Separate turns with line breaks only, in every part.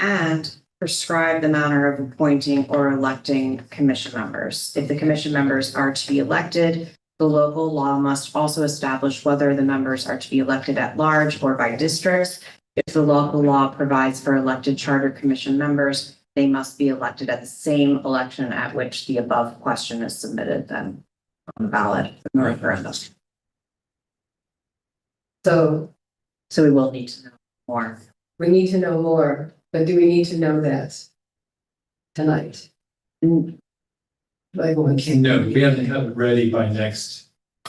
and prescribe the manner of appointing or electing commission members. If the commission members are to be elected, the local law must also establish whether the members are to be elected at large or by districts. If the local law provides for elected charter commission members, they must be elected at the same election at which the above question is submitted then on the ballot in the referendum.
So
So we will need to know more.
we need to know more, but do we need to know that tonight?
Mm,
Like, when-
No, we have to have it ready by next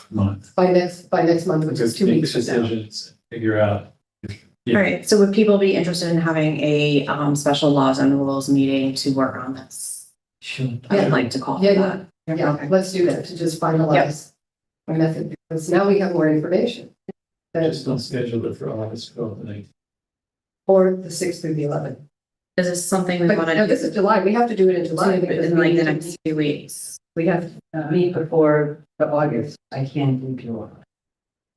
month.
by next, by next month, which is
Because
two
make
weeks from now.
decisions, figure out.
All
Yeah.
right, so would people be interested in having a um special laws and rules meeting to work on this?
Sure.
I'd like to call for
Yeah,
that.
Yeah,
Okay.
let's do that to just finalize our method, because now we have more information. than-
Just don't schedule it for August twelfth and nineteenth.
Or the sixth through the eleventh.
Is this something we
But
want to
no, this
do
is July, we have to do it in July. because
in
we
like
need
the
to-
next few weeks?
We have,
Uh, meet before the August, I can't do July.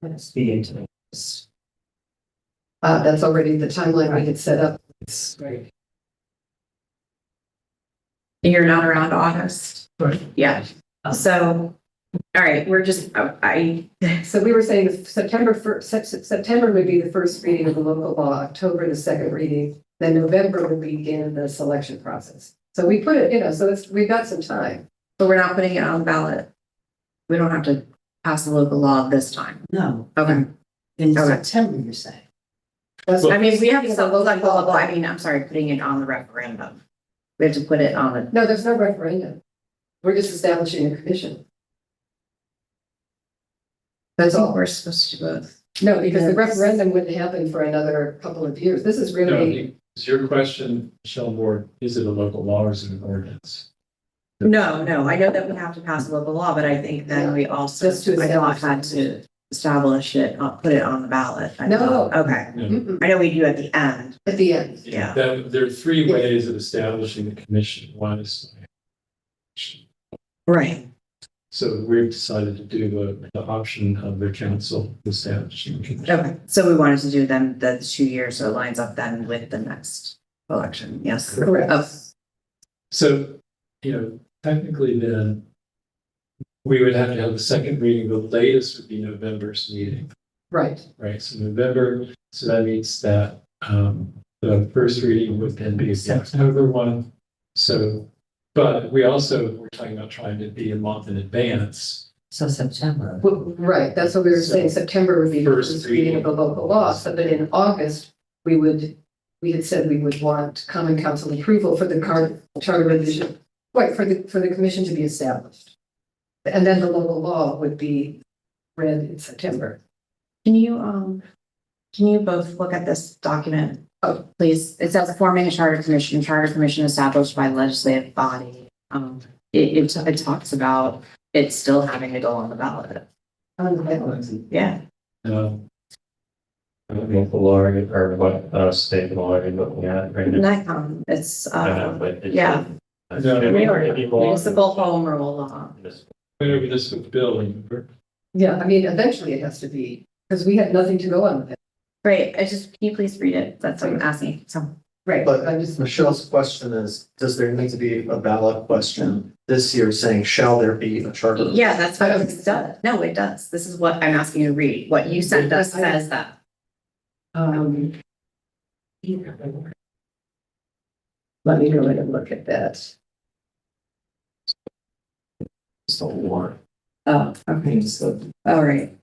Let's be into this.
uh, that's already the timeline we had set up.
It's great.
You're not around August?
Right.
Yeah, so, all right, we're just, I- I,
So we were saying September first, September would be the first reading of the local law, October the second reading, then November would begin the selection process. So we put it, you know, so it's, we've got some time.
but we're not putting it on the ballot. We don't have to pass the local law this time.
No,
Okay.
in
Okay.
September, you're saying.
That's-
I mean, we have to,
Yeah, the
local
local law.
law, I mean, I'm sorry, putting it on the referendum. We have to put it on the
No, there's no referendum. We're just establishing a commission. That's
So
all.
we're supposed to vote.
No, because the
Yeah.
referendum wouldn't happen for another couple of years. This is really,
Is your question, Michelle Ward, is it a local law or is it an ordinance?
No, no, I know that we have to pass a local law, but I think then we also,
Just to
I thought
establish
had to establish it, uh, put it on the ballot. I
No.
thought. Okay,
Mm-mm,
I know we do at the end.
at the end.
Yeah.
That, there are three ways of establishing the commission. One is.
Right.
So we've decided to do the, the option of the council establishing. the commission.
Okay, so we wanted to do then the two years, so it lines up then with the next election, yes.
Correct.
Oh,
So, you know, technically then. We would have to have the second reading, the latest would be November's meeting.
Right.
Right, so November, so that means that um the first reading would then be the October one. So, but we also, we're talking about trying to be a month in advance.
So September.
W- Right. That's what we were saying. September would be the
First
first reading of the local law. So that in August, we would, we had said we would want common council approval for the car- charter revision. Right, for the, for the commission to be established. And then the local law would be read in September.
Can you, um, can you both look at this document? Oh, please, it says forming a charter commission, charter commission established by legislative body. Um, it, it, it talks about it still having to go on the ballot.
On the ballot.
Yeah.
Um,
Local law or what, uh, state law you're looking at right now.
NICOM, um, it's
I don't know,
uh,
but it's-
yeah.
No, no,
Maybe
no.
law-
municipal home rule law.
whenever this with the building,
Yeah, I mean, eventually it has to be, because we had nothing to go on with it.
Great, I just, can you please read it? That's what I'm asking, so.
Right.
But-
I'm just,
Michelle's question is, does there need to be a ballot question this year saying, shall there be a charter?
Yeah, that's what it does. No, it does. This is what I'm asking you to read. What you sent us says that.
um. Let me go in and look at that.
It's the warrant.
Oh, okay,
It's the-
all right,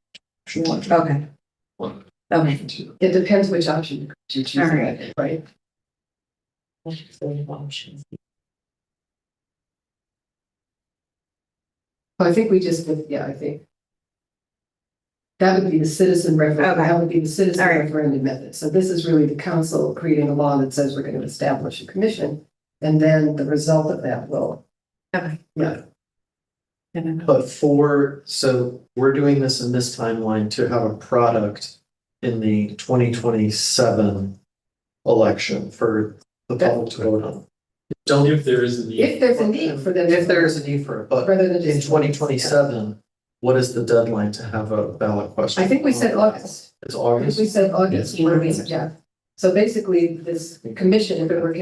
okay. Okay,
It depends which option you choose,
All right.
right? So I think we just, yeah, I think. That would be the citizen referendum,
Okay.
that would be the citizen
All right.
referendum method. So this is really the council creating a law that says we're going to establish a commission. And then the result of that will,
okay.
Yeah.
But for, so we're doing this in this timeline to have a product in the twenty twenty-seven election for the public to vote on.
only if there is
if
a need.
there's a need for them. to-
If there is a need for it, but
Rather than
in
just.
twenty twenty-seven, what is the deadline to have a ballot question?
I think we said August.
It's
I think we
August.
said August, what do we, yeah. So basically, this commission, if it were